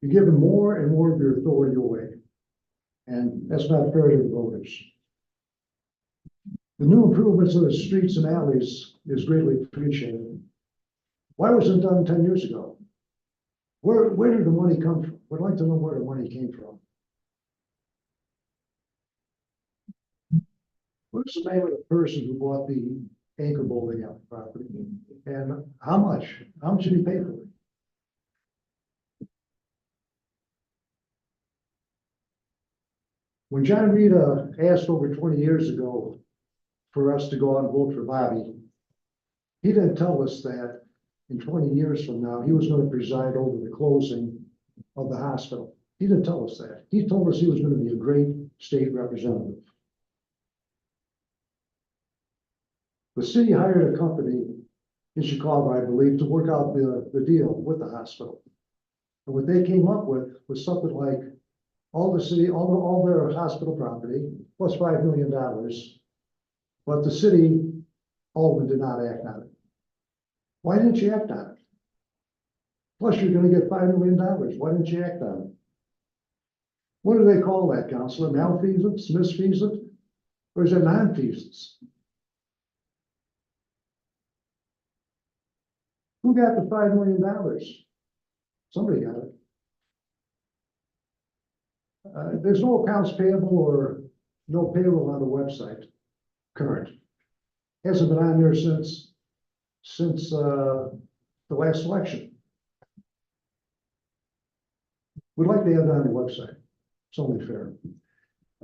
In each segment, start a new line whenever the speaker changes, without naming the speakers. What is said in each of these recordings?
You're giving more and more of your authority away. And that's not fair to the voters. The new improvements of the streets and alleys is greatly appreciated. Why wasn't it done ten years ago? Where, where did the money come from? Would like to know where the money came from. What's the name of the person who bought the anchor building out property? And how much, how much did he pay for it? When John Rita asked over twenty years ago for us to go out and vote for Bobby, he didn't tell us that in twenty years from now, he was gonna preside over the closing of the hospital. He didn't tell us that. He told us he was gonna be a great state representative. The city hired a company in Chicago, I believe, to work out the, the deal with the hospital. And what they came up with was something like all the city, all, the- all their hospital property, plus five million dollars. But the city, Alden did not act on it. Why didn't you act on it? Plus, you're gonna get five million dollars, why didn't you act on it? What do they call that, Counselor, malfeasance, misfeasance, or is it nonfeasance? Who got the five million dollars? Somebody got it. Uh, there's no accounts payable or no payroll on the website, current. Hasn't been on there since, since, uh, the last election. We'd like to have it on the website, it's only fair.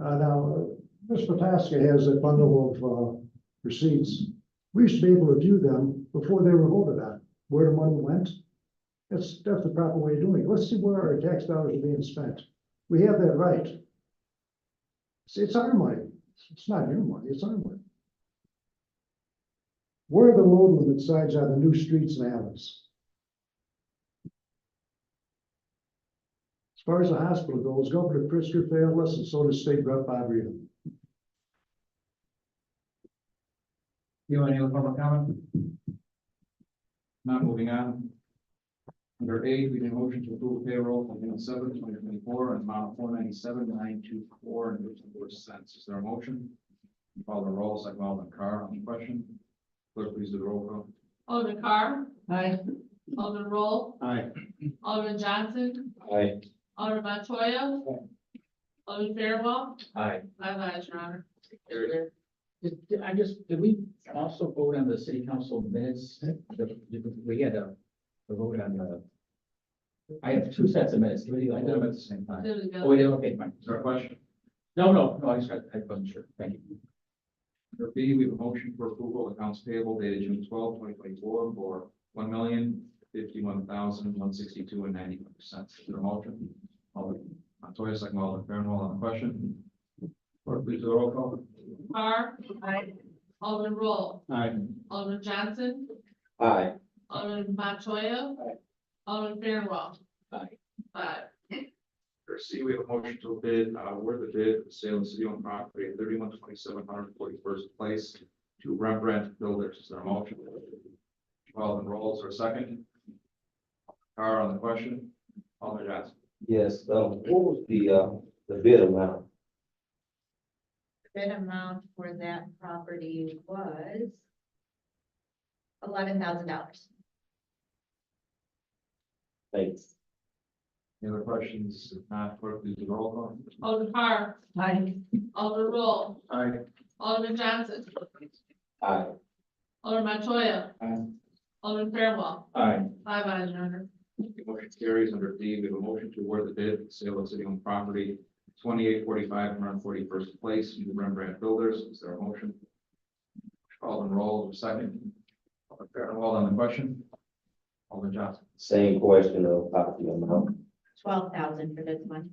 Uh, now, Ms. Potaska has a bundle of, uh, receipts. We used to be able to view them before they were voted on, where the money went. That's, that's the proper way of doing it, let's see where our tax dollars are being spent. We have that right. It's, it's our money. It's not your money, it's our money. Where are the load limit signs on the new streets and alleys? As far as the hospital goes, Governor Pritzker failed us and so does State Rep Bob Rita.
You want any other public comment? Not moving on. Under eight, we need a motion to approve payroll from June seventh, twenty twenty-four, and amount four ninety-seven, nine two four, and fifty-four cents. Is there a motion? Follow the roll, second Alderman Carr, on the question. Clerk, please do the roll call.
Alderman Carr.
Aye.
Alderman Roll.
Aye.
Alderman Johnson.
Aye.
Alderman Montoya. Alderman Fairwell.
Aye.
Five ayes, Your Honor.
Did, did- I just, did we also vote on the city council minutes? The- We had a, a vote on the. I have two sets of minutes, do we, I
I
did
them
them
at
at-
the same time.
There we
oh, we
go.
did, okay, fine,
Is there a question?
no, no, no, I just, I wasn't sure, thank you.
Under B, we have a motion for approval of accounts payable dated June 12, 2024, for one million fifty-one thousand one sixty-two and ninety-one cents. Is there a motion? Alderman Montoya, second Alderman Fairwell on the question. Clerk, please do the roll call.
Carr. Aye. Alderman Roll.
Aye.
Alderman Johnson.
Aye.
Alderman Montoya.
Aye.
Alderman Fairwell.
Aye.
Five.
Under C, we have a motion to bid, uh, award the bid for sale of city-owned property at 3127 141st place to Rembrandt Builders. Is there a motion? Alderman Rolls, or a second? Carr on the question. Alderman Johnson.
Yes, um, what was the, uh, the bid amount?
Bid amount for that property was eleven thousand dollars.
Thanks.
Any other questions? If not, clerk, please do the roll call.
Alderman Carr.
Aye.
Alderman Roll.
Aye.
Alderman Johnson.
Aye.
Alderman Montoya.
Aye.
Alderman Fairwell.
Aye.
Five ayes, Your Honor.
Motion carries under D, we have a motion to award the bid for the sale of city-owned property, twenty-eight forty-five, one hundred forty-first place, to Rembrandt Builders. Is there a motion? Alderman Roll, second. Alderman Fairwell on the question. Alderman Johnson.
Same question of about the amount.
Twelve thousand for this one.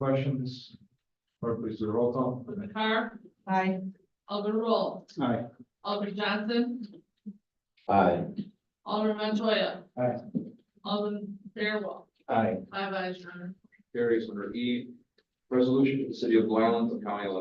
Questions? Clerk, please do the roll call.
Alderman Carr.
Aye.
Alderman Roll.
Aye.
Alderman Johnson.
Aye.
Alderman Montoya.
Aye.
Alderman Fairwell.
Aye.
Five ayes, Your Honor.
Carries under E, resolution to the city of Blue Island, County of